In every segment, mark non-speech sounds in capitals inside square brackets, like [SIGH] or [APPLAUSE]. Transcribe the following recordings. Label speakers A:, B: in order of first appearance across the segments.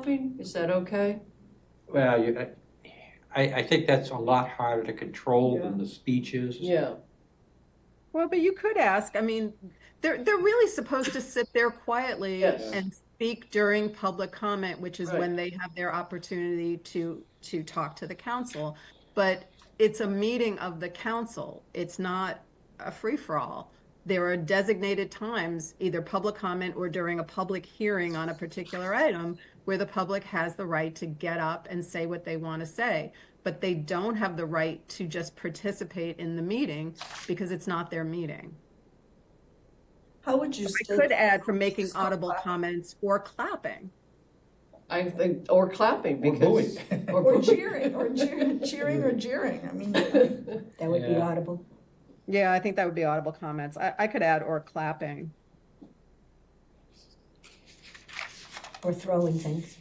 A: shopping? Is that okay?
B: Well, you, I- I, I think that's a lot harder to control than the speeches.
A: Yeah.
C: Well, but you could ask. I mean, they're they're really supposed to sit there quietly
A: Yes.
C: and speak during public comment, which is
A: Right.
C: when they have their opportunity to to talk to the council. But it's a meeting of the council. It's not a free for all. There are designated times, either public comment or during a public hearing on a particular item, where the public has the right to get up and say what they want to say. But they don't have the right to just participate in the meeting because it's not their meeting.
A: How would you
C: I
A: state?
C: could add from making audible comments or clapping.
A: I think, or clapping
B: Or
A: because. Or
D: Or
A: booing.
D: cheering, or cheering, cheering or jeering, I mean,
E: That would be
B: Yeah.
E: audible.
C: Yeah, I think that would be audible comments. I, I could add or clapping.
E: Or throwing things.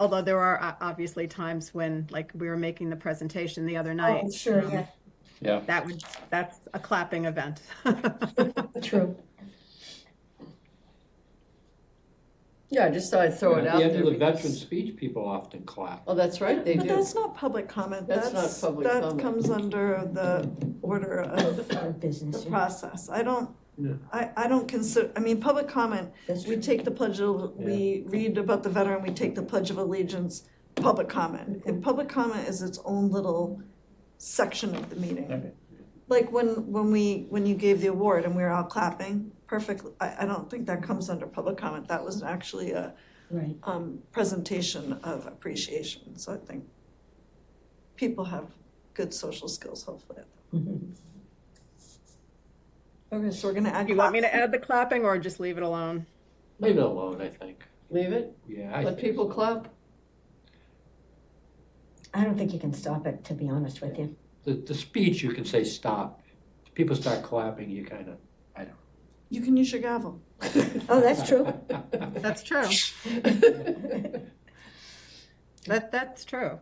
C: Although there are uh, obviously times when, like, we were making the presentation the other night.
E: Oh, sure, yeah,
C: That would, that's a clapping [LAUGHS] event.
E: true.
A: [LAUGHS] Yeah, I just thought I'd throw it
B: At
A: out
B: the
A: there.
B: end of the
A: because-
B: veteran speech, people often clap.
A: Oh, that's right, they
D: but
A: do.
D: that's not public comment,
A: That's not
D: that's,
A: public
D: that
A: comment.
D: comes under the order of
E: Or
D: the
E: business, yeah,
D: process, I don't,
B: Yeah.
D: I, I don't consider, I mean, public comment,
E: that's
D: we
E: true.
D: take the pledge, of we read about the veteran, we take the pledge of allegiance, public comment, and public comment is its own little section of the
B: Okay.
D: meeting. Like when, when we, when you gave the award and we were all clapping, perfect, I, I don't think that comes under public comment, that was actually a
E: Right,
D: um, presentation of appreciation. So I think people have good social skills, hopefully.
E: Mhm.
D: Okay, so we're gonna add.
C: You want me to add the clapping or just leave it alone?
B: Leave it alone, I think.
A: Leave it,
B: Yeah. I
A: let
B: think
A: people
B: so. [LAUGHS]
A: clap.
E: I don't think you can stop it, to be honest with you.
B: The, the speech, you can say stop. If People start clapping, you kind of.
D: You can use your gavel.
E: Oh,
B: [LAUGHS]
E: that's true.
C: That's true. That, that's true.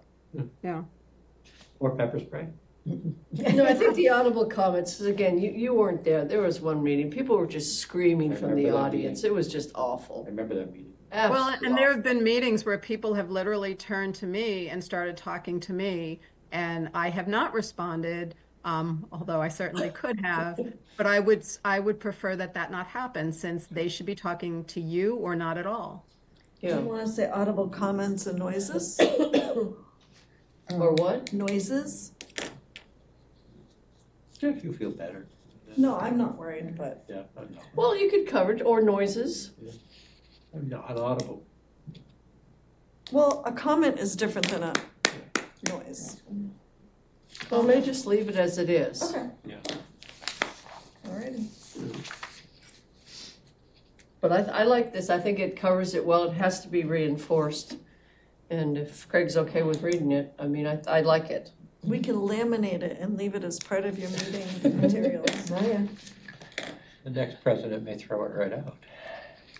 B: Or pepper spray.
A: No, I think the audible comments, is, again, you, you weren't there, there was one meeting, people were just screaming
B: I
A: from the
B: remember that
A: audience, it was just awful.
B: I remember that meeting.
C: Well,
A: Absolutely.
C: and there have been meetings where people have literally turned to me and started talking to me, and I have not responded, um, although I certainly could have. But I would, I would prefer that that not happen since they should be talking to you or not at all.
D: Do you
A: Yeah,
D: wanna say audible comments and [COUGHS] noises?
A: or what?
D: Noises?
B: If you feel better.
D: No, I'm not worried, but
B: Yeah, I know.
A: Well, you could cover it, or noises,
B: I'm not audible.
D: well, a comment is different than a noise.
A: well, may just leave it as it is.
B: Yeah.
D: Alrighty.
A: But I, I like this, I think it covers it well, it has to be reinforced. And if Craig's okay with reading it, I mean, I, I like it.
D: We can laminate it and leave it as part of your meeting [LAUGHS] materials.
E: Oh, yeah.
B: The next president may throw it right out.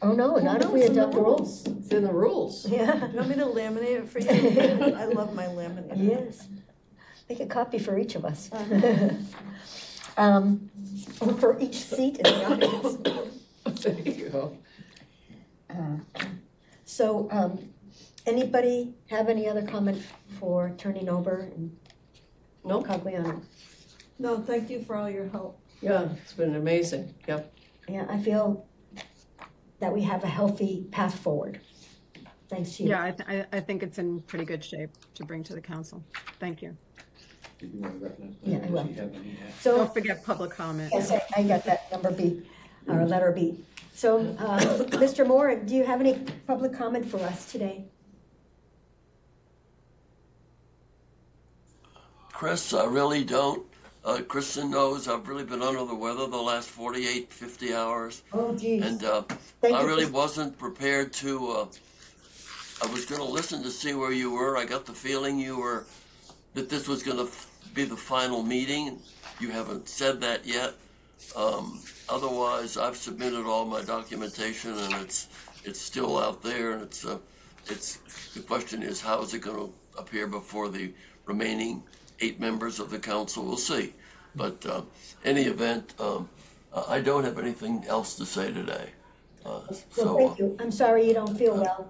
E: Oh, no, not if we adopt the rules.
A: It's in the rules. [LAUGHS]
E: [LAUGHS] Yeah,
D: Do you want me to laminate it for [LAUGHS] you? I love my laminate.
E: yes. Make a copy for each of us. [LAUGHS] Um, or for each seat in the audience.
A: There you go.
E: Uh, So, um, anybody have any other comment for turning over and
A: Nope.
E: Cogliano?
D: No, thank you for all your help.
A: Yeah, it's been amazing, yep.
E: Yeah, I feel that we have a healthy path forward. Thanks to you.
C: Yeah, I, th- I, I think it's in pretty good shape to bring to the council. Thank you.
B: Did you want to recognize?
E: Yeah, I will.
B: Does he have any, uh,
E: So,
C: Don't forget public comment.
E: yes, I- I got that number B, or letter B. So, uh, [COUGHS] Mr. Moore, do you have any public comment for us today?
F: Chris, I really don't. Uh, Kristen knows I've really been under the weather the last 48, 50 hours.
E: Oh, geez.
F: And uh,
E: Thank
F: I
E: you.
F: really wasn't prepared to. Uh, I was going to listen to see where you were. I got the feeling you were that this was going to f- be the final meeting. You haven't said that yet. Um, otherwise, I've submitted all my documentation, and it's it's still out there. And it's uh, it's the question is how is it going to appear before the remaining eight members of the council? We'll see. But uh, any event, um, I I don't have anything else to say today. Uh,
E: Well,
F: So, uh,
E: thank you. I'm sorry you don't feel well.